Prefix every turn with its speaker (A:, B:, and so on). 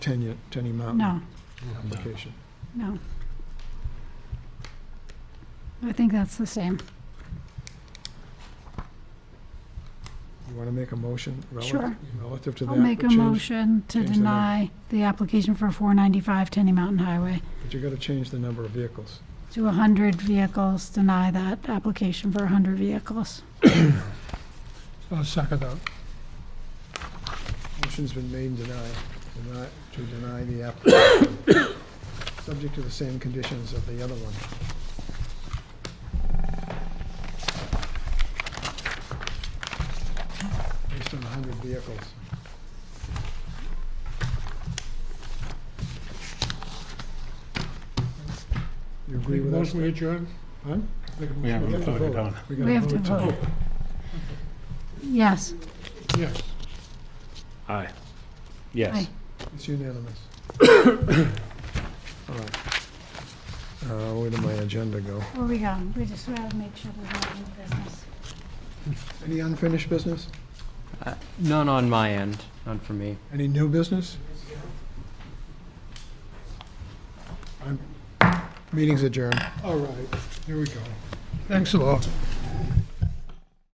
A: Tenny, Tenny Mountain
B: No,
A: application.
B: no. I think that's the same.
A: You want to make a motion relative,
B: Sure.
A: relative to that?
B: I'll make
A: but
B: a
A: change-
B: motion to
A: change the num-
B: deny the application for 495 Tenny Mountain Highway
A: But you got to change the number of vehicles.
B: to 100 vehicles, deny that application for 100 vehicles.
C: I'll second that.
A: Motion's been made and denied, deny, to deny the application, subject to the same conditions of the other one. Based on hundred vehicles. You agree with us?
C: Motion we adjourn?
A: Huh?
D: We haven't voted on.
A: gotta
B: We have to
A: tonight.
B: vote. Yes.
C: Yes.
D: Aye. Yes.
B: Aye.
A: It's unanimous. All right. Uh, Where did my agenda go?
B: Where we go? We just want to make sure we have new business.
A: Any unfinished business?
E: None on my end, none for me.
A: Any new business? I'm- Meeting's adjourned.
C: All right, here we go. Thanks a lot.